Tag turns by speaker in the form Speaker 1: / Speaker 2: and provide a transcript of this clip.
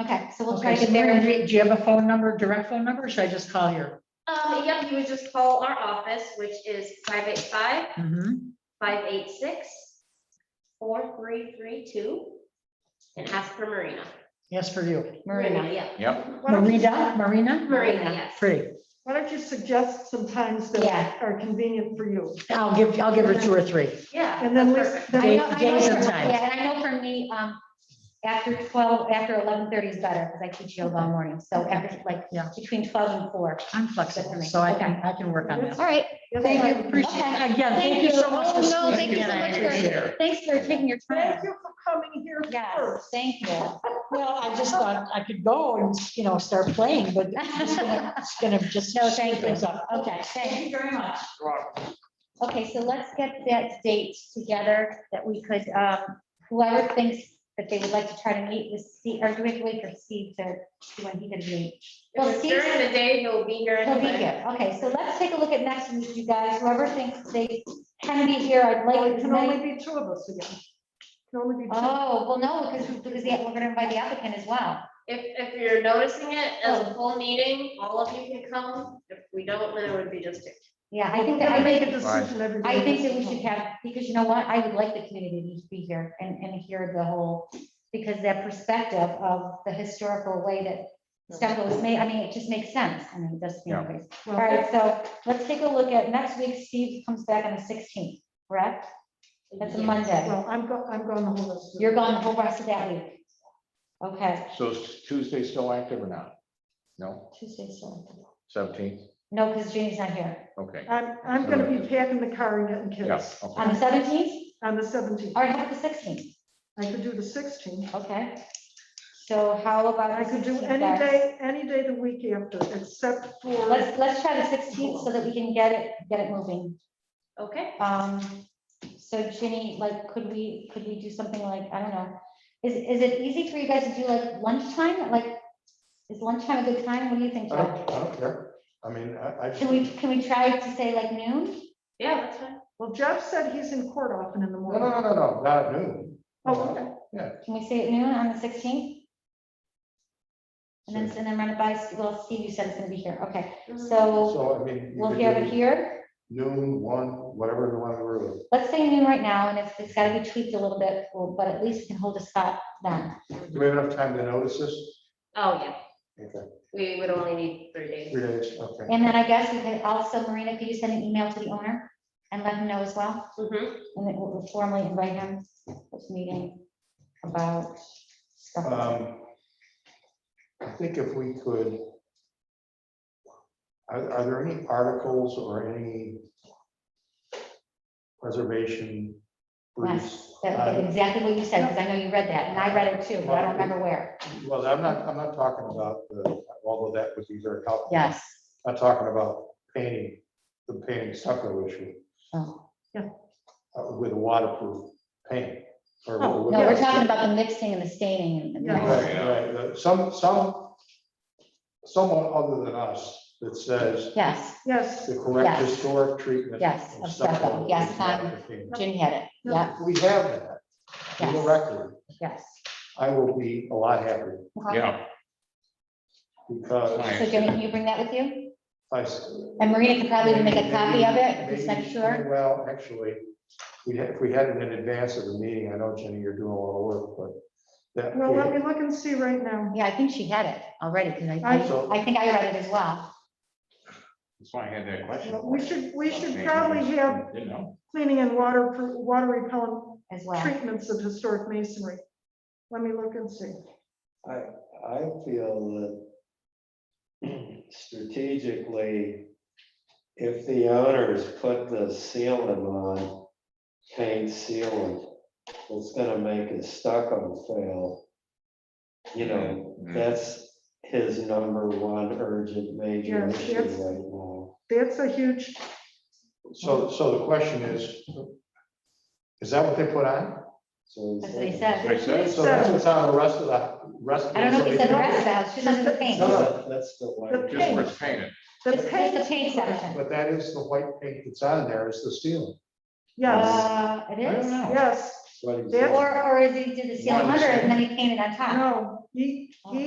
Speaker 1: Okay, so we'll try
Speaker 2: Okay,
Speaker 1: to
Speaker 2: so
Speaker 1: get there.
Speaker 2: Mary, do you- do you have a phone number, direct phone number, or should I just call here?
Speaker 3: Um, yeah, you would just call our office, which is five eight five,
Speaker 2: Mhm.
Speaker 3: five eight six, four three three two, and ask for Marina.
Speaker 2: Yes, for you.
Speaker 1: Marina.
Speaker 3: Yeah.
Speaker 4: Yep.
Speaker 5: Why don't you-
Speaker 2: Marina, Marina?
Speaker 3: Marina, yes.
Speaker 2: Free.
Speaker 5: Why don't you suggest some times that
Speaker 1: Yeah.
Speaker 5: are convenient for you?
Speaker 2: I'll give, I'll give her two or three.
Speaker 3: Yeah.
Speaker 5: And then
Speaker 3: that's
Speaker 5: we-
Speaker 3: perfect.
Speaker 5: then-
Speaker 1: I know- I know
Speaker 2: Days and
Speaker 1: for-
Speaker 2: times.
Speaker 1: Yeah, and I know for me, um, after twelve, after eleven thirty is better, because I teach yoga all morning, so after, like,
Speaker 2: Yeah.
Speaker 1: between twelve and four.
Speaker 2: I'm flexible, so I can, I can work on that.
Speaker 1: All right,
Speaker 5: Yes,
Speaker 2: Thank
Speaker 5: I-
Speaker 2: you, appreciate,
Speaker 1: Okay.
Speaker 2: again, thank you so much for
Speaker 1: Oh, no,
Speaker 2: squeezing
Speaker 1: thank
Speaker 2: me
Speaker 1: you
Speaker 2: in.
Speaker 1: so
Speaker 2: I
Speaker 1: much
Speaker 2: appreciate
Speaker 1: for,
Speaker 2: it.
Speaker 1: thanks for taking your time.
Speaker 5: Thank you for coming here
Speaker 1: Yes,
Speaker 5: first.
Speaker 1: thank you.
Speaker 2: Well, I just thought I could go and, you know, start playing, but it's just gonna- it's gonna just
Speaker 1: No,
Speaker 2: speed
Speaker 1: thank you.
Speaker 2: things up.
Speaker 1: Okay, thank you very much.
Speaker 5: Right.
Speaker 1: Okay, so let's get that date together that we could, um, whoever thinks that they would like to try to meet with Steve, or do we have to wait for Steve to, see when he can meet? Well,
Speaker 3: If it's
Speaker 1: Steve-
Speaker 3: During the day, he'll be here.
Speaker 1: He'll be
Speaker 3: anyway.
Speaker 1: here. Okay, so let's take a look at next week, you guys. Whoever thinks they can be here, I'd
Speaker 5: Well,
Speaker 1: like
Speaker 5: it
Speaker 1: as
Speaker 5: can only
Speaker 1: many.
Speaker 5: be two of us again. Can only be two.
Speaker 1: Oh, well, no, because, because the- we're gonna invite the applicant as well.
Speaker 3: If, if you're noticing it as
Speaker 1: Oh.
Speaker 3: a full meeting, all of you can come. If we don't, then it would be just two.
Speaker 1: Yeah, I think
Speaker 5: We're
Speaker 1: that, I
Speaker 5: gonna make
Speaker 1: think,
Speaker 5: a decision every day.
Speaker 1: I think that we should have, because you know what? I would like the community to be here and, and hear the whole, because that perspective of the historical way that stuff was made, I mean, it just makes sense. I mean, it does,
Speaker 4: Yeah.
Speaker 1: anyways. All
Speaker 5: Well,
Speaker 1: right, so let's take a look at next week. Steve comes back on the sixteenth, correct? That's a Monday.
Speaker 5: well, I'm go, I'm going the whole rest of
Speaker 1: You're gone the whole rest of that week. Okay,
Speaker 4: So is Tuesday still active or not? No,
Speaker 1: Tuesday, so,
Speaker 4: seventeenth,
Speaker 1: no, because Jane's not here.
Speaker 4: okay.
Speaker 5: I'm, I'm gonna be packing the car and getting
Speaker 4: Yeah,
Speaker 5: kids
Speaker 1: On
Speaker 4: okay.
Speaker 1: the seventeenth,
Speaker 5: on the seventeenth.
Speaker 1: or how about the sixteenth?
Speaker 5: I could do the sixteenth.
Speaker 1: Okay. So how about?
Speaker 5: I
Speaker 1: the
Speaker 5: could do
Speaker 1: 16th,
Speaker 5: any
Speaker 1: guys?
Speaker 5: day, any day the week after, except for,
Speaker 1: Let's, let's try the sixteenth so that we can get it, get it moving.
Speaker 3: Okay,
Speaker 1: Um, so Ginny, like, could we, could we do something like, I don't know, is, is it easy for you guys to do like lunchtime? Like, is lunchtime a good time? What do you think?
Speaker 6: I
Speaker 1: Joe?
Speaker 6: don't, I don't care. I mean, I, I.
Speaker 1: Can we, can we try to say like noon?
Speaker 3: yeah, that's fine.
Speaker 5: well, Jeff said he's in court often in the
Speaker 6: No,
Speaker 5: morning.
Speaker 6: no, no, no, not at noon.
Speaker 5: Oh, okay.
Speaker 1: Can we say at noon on the sixteenth? And then, and then run it by, well, Steve, you said it's gonna be here, okay, so
Speaker 6: So, I mean. you
Speaker 1: we'll
Speaker 6: could
Speaker 1: have
Speaker 6: do
Speaker 1: it here,
Speaker 6: Noon, one, whatever the one we're,
Speaker 1: let's say noon right now, and if it's gotta be tweaked a little bit, well, but at least we can hold a spot then.
Speaker 6: do we have enough time to notice this?
Speaker 3: Oh, yeah,
Speaker 6: Okay,
Speaker 3: we would only need three days.
Speaker 6: three days, okay.
Speaker 1: And then I guess we could also, Marina, could you send an email to the owner and let him know as well,
Speaker 3: Mhm.
Speaker 1: and then we'll formally invite him to this meeting about stuff.
Speaker 6: Um, I think if we could. Are, are there any articles or any preservation briefs?
Speaker 1: That-
Speaker 6: on-
Speaker 1: Exactly what you said, because I know you read that, and I read it too, but I don't remember where,
Speaker 6: Well, I'm not, I'm not talking about, the- although that would be very helpful.
Speaker 1: yes,
Speaker 6: I'm talking about painting, the painting stucco issue
Speaker 1: oh.
Speaker 6: uh, with waterproof paint. or-
Speaker 5: Oh,
Speaker 1: No, we're talking about the mixing and the staining and.
Speaker 5: Yeah.
Speaker 1: the-
Speaker 6: Right, right, right. Some, some, someone other than us that says
Speaker 1: Yes,
Speaker 5: Yes,
Speaker 6: the correct
Speaker 1: Yes.
Speaker 6: historic treatment.
Speaker 1: Yes,
Speaker 6: of
Speaker 1: of stucco.
Speaker 6: stucco
Speaker 1: Yes,
Speaker 6: is
Speaker 1: I'm-
Speaker 6: waterproofing.
Speaker 1: Ginny had it. Yeah,
Speaker 6: We have that, for the
Speaker 1: Yes.
Speaker 6: record.
Speaker 1: yes.
Speaker 6: I will be a lot happier
Speaker 4: Yeah.
Speaker 6: because
Speaker 1: Uh-huh. So Ginny, can you bring that with you?
Speaker 6: I. s-
Speaker 1: And Marina could probably make a copy of it,
Speaker 6: Maybe-
Speaker 1: just make
Speaker 6: maybe-
Speaker 1: sure.
Speaker 6: Well, actually, we had, if we had it in advance of the meeting, I know, Jenny, you're doing a lot of work, but that.
Speaker 5: well,
Speaker 6: we-
Speaker 5: let me look and see right now.
Speaker 1: Yeah, I think she had it already, because I,
Speaker 5: I-
Speaker 6: So-
Speaker 1: I- I think I read it as well.
Speaker 4: That's why I had that question.
Speaker 5: We should, we should probably have
Speaker 4: You know,
Speaker 5: cleaning and water, water repellent
Speaker 1: As well.
Speaker 5: treatments of historic masonry. Let me look and see.
Speaker 7: I, I feel that strategically, if the owners put the sealant on, paint sealant, it's gonna make his stucco fail. You know,
Speaker 4: Mhm.
Speaker 7: that's his number one urgent major
Speaker 5: Yeah,
Speaker 7: issue
Speaker 5: that's-
Speaker 7: right now.
Speaker 5: That's a huge,
Speaker 6: So, so the question is, is that what they put on?
Speaker 7: So
Speaker 1: That's what he
Speaker 7: it's-
Speaker 1: said.
Speaker 4: like I said,
Speaker 6: So that's what's on the rest of the, rest. of
Speaker 1: uh, I don't know if he said the
Speaker 6: the-
Speaker 1: rest of the house, just under the paint.
Speaker 7: No, no, ah, That's the
Speaker 5: The
Speaker 7: one.
Speaker 4: Just where it's painted.
Speaker 5: the
Speaker 1: Just just the
Speaker 5: paint,
Speaker 1: paint section.
Speaker 6: But that is the white paint that's on there, is the steel.
Speaker 5: yes,
Speaker 1: Uh, it
Speaker 4: I don't
Speaker 1: is.
Speaker 4: know.
Speaker 5: yes,
Speaker 7: what he
Speaker 5: That's-
Speaker 7: said.
Speaker 1: Or, or is he did the seal
Speaker 4: One
Speaker 1: under it and
Speaker 4: section.
Speaker 1: then he painted on top?
Speaker 5: no, he, he